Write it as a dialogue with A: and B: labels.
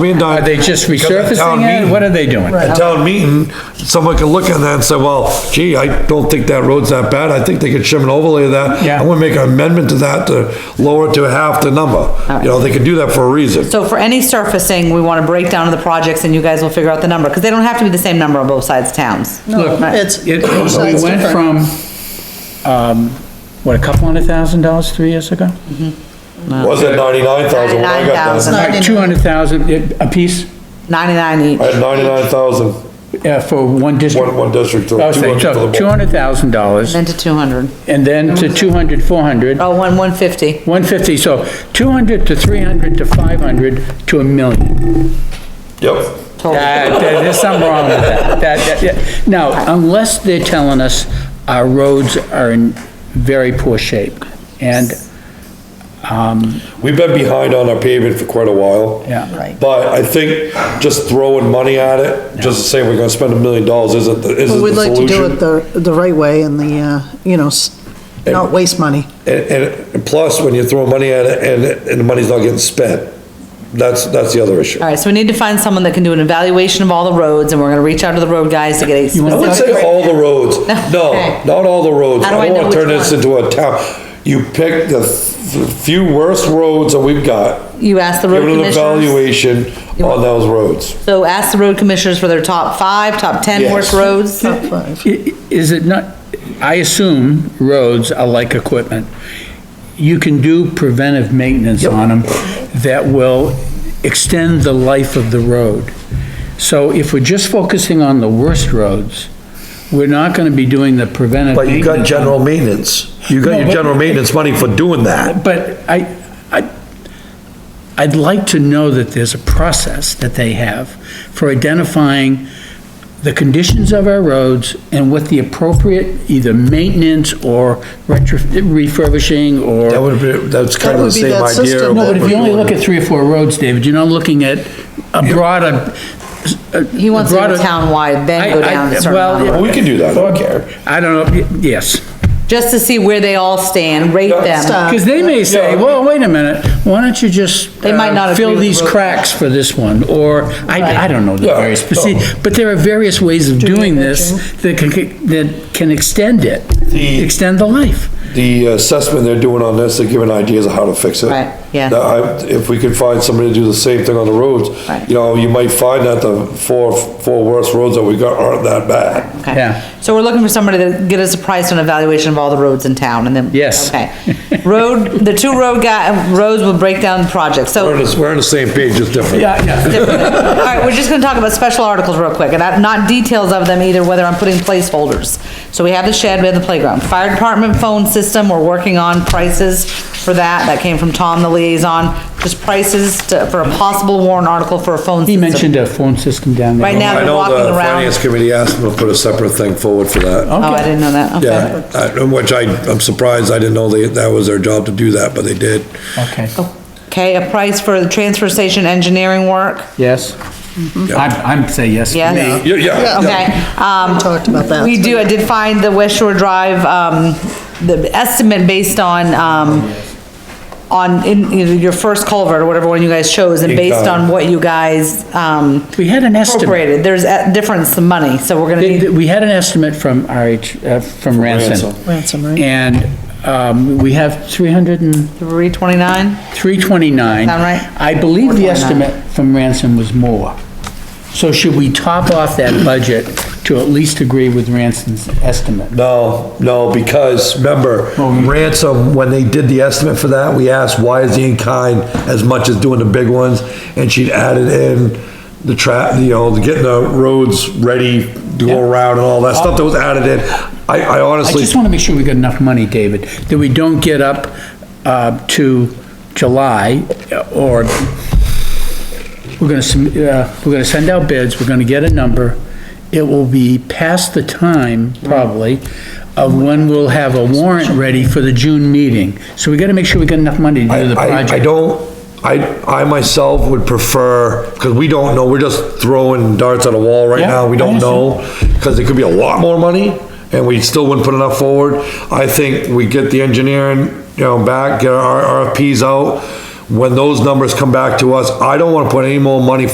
A: mean, the-
B: Are they just
A: because at town
B: resurfacing it?
A: meeting-
B: What are they doing?
A: At town meeting, someone can look at that and say, well, gee, I don't think that road's that bad, I think they could shim and overlay that.
B: Yeah.
A: I'm gonna make an amendment to that to lower it to half the number. You know, they could do that for a reason.
C: So for any surfacing, we want to break down the projects and you guys will figure out the number, because they don't have to be the same number on both sides of towns.
B: Look,
D: it's-
B: it,
D: it's
B: we went
D: different.
B: from, um, what, a couple hundred thousand dollars three years ago?
A: Was it ninety-nine thousand when I got done?
C: 99,000.
B: Like two hundred thousand a piece,
C: Ninety-nine
A: I
C: each.
A: had ninety-nine thousand,
B: uh, for one district.
A: one, one district, two
B: I was
A: hundred
B: saying,
A: for
B: Oh, so
A: the
B: two
A: board.
B: hundred thousand dollars
C: Then to two hundred.
B: and then to two hundred, four hundred,
C: Oh, one, one fifty.
B: one fifty, so two hundred to three hundred to five hundred to a million.
A: Yep.
C: Oh.
B: Uh, there- There's something wrong with that. That- that- yeah. Now, unless they're telling us our roads are in very poor shape and
A: We've been behind on our paving for quite a while.
B: Yeah.
D: Right.
A: But I think just throwing money at it, just to say we're gonna spend a million dollars isn't, the- isn't
D: But
A: the
D: we'd like to do it
A: solution.
D: the, the right way and the, uh, you know, s- not waste money.
A: And, and- and plus, when you throw money at it and, it- and the money's not getting spent, that's, that's the other issue.
C: All right, so we need to find someone that can do an evaluation of all the roads, and we're gonna reach out to the road guys to get a
A: I would
C: specific.
A: say all the roads,
C: Okay.
A: no, not all the roads,
C: How do
A: I
C: I
A: don't
C: know
A: wanna
C: which
A: turn this
C: one?
A: into a town. You pick the th- few worst roads that we've got,
C: You ask the
A: give
C: road
A: it an
C: commissioners.
A: evaluation on those roads.
C: So ask the road commissioners for their top five, top ten
A: Yes.
C: worst roads.
D: Top five.
B: I- Is it not, I assume roads are like equipment. You can do preventive maintenance on them that will extend the life of the road. So if we're just focusing on the worst roads, we're not gonna be doing the preventive
A: But you
B: maintenance.
A: got general maintenance, you got
B: No,
A: your
B: but-
A: general maintenance money for doing that.
B: But I, I, I'd like to know that there's a process that they have for identifying the conditions of our roads and what the appropriate either maintenance or retro, refurbishing or.
A: That would be, that's kind of the
D: would be
A: same
D: that
A: idea.
D: system.
A: of
B: No,
A: what
B: but if
A: we're
B: you only
A: doing.
B: look at three or four roads, David, you're not looking at a broader. a-
C: He wants to go
B: broader-
C: town-wide, then go
B: I- I-
C: down to certain
B: well,
C: number.
A: We can do that, I don't care.
B: I don't know, yes.
C: just to see where they all stand, rate them.
D: Stop.
B: Because they may say, well, wait a minute, why don't you just
C: They might not
B: uh, fill
C: agree with
B: these
C: the road.
B: cracks for this one, or, I, I don't know the
A: Yeah,
B: various, but see,
A: no.
B: but there are various ways of doing this that can, that can extend it,
A: The-
B: extend the life.
A: The assessment they're doing on this, they're giving ideas of how to fix it.
C: Right, yes.
A: That I- If we could find somebody to do the same thing on the roads,
C: Right.
A: you know, you might find that the four, four worst roads that we got aren't that bad.
C: Okay.
B: Yeah.
C: So we're looking for somebody to get us a price on evaluation of all the roads in town and then.
B: Yes.
C: Okay. Road, the two road guy, roads will break down the project,
A: We're
C: so.
A: on the, we're on the same page, it's different.
B: Yeah, yeah.
C: All right, we're just gonna talk about special articles real quick, and I'm not details of them either, whether I'm putting placeholders. So we have the shed, we have the playground, fire department phone system, we're working on prices for that, that came from Tom, the liaison. Just prices to, for a possible warrant article for a phone
B: He
C: system.
B: mentioned a phone system down there.
C: Right now-
A: I
C: I've been
A: know the
C: walking around.
A: finance committee asked them to put a separate thing forward for that.
C: Oh, I didn't know that, okay.
A: Yeah, I- which I, I'm surprised, I didn't know they, that was their job to do that, but they did.
B: Okay,
C: Oh. Okay, a price for the transfer station engineering work?
B: yes. I'm, I'm say yes. for
C: Yes.
B: me.
A: Yeah, yeah.
C: Okay,
D: We
C: um,
D: talked about that.
C: we do, I did find the West Shore Drive, um, the estimate based on, um, on, in, you know, your first culvert, or whatever one you guys chose, and based on what you guys, um,
B: We had an estimate,
C: appropriated, there's a difference in money, so we're gonna need,
B: we had an estimate from RH, uh, from Ranson.
D: Ransom, right?
B: And, um, we have three hundred and
C: three twenty-nine?
B: 329.
C: Sound right?
B: I believe the
C: 429.
B: estimate from Ransom was more. So should we top off that budget to at least agree with Ransom's estimate?
A: No, no, because remember, ransom, when they did the estimate for that, we asked, why is the in-kind as much as doing the big ones? And she'd added in the trap, you know, getting the roads ready to go around and all that stuff that was added in. I, I
B: I
A: honestly,
B: just want to make sure we got enough money, David, that we don't get up uh, to July uh, or we're going to, uh, we're going to send out bids, we're going to get a number. It will be past the time, probably, of when we'll have a warrant ready for the June meeting. So we got to make sure we got enough money to do the
A: I,
B: project.
A: I don't, I, I myself would prefer, because we don't know, we're just throwing darts at a wall right
B: Yeah,
A: now, we
B: I
A: don't
B: understand.
A: know, because it could be a lot more money, and we still wouldn't put enough forward. I think we get the engineering, you know, back, get our RFPs out, when those numbers come back to us, I don't wanna put any more money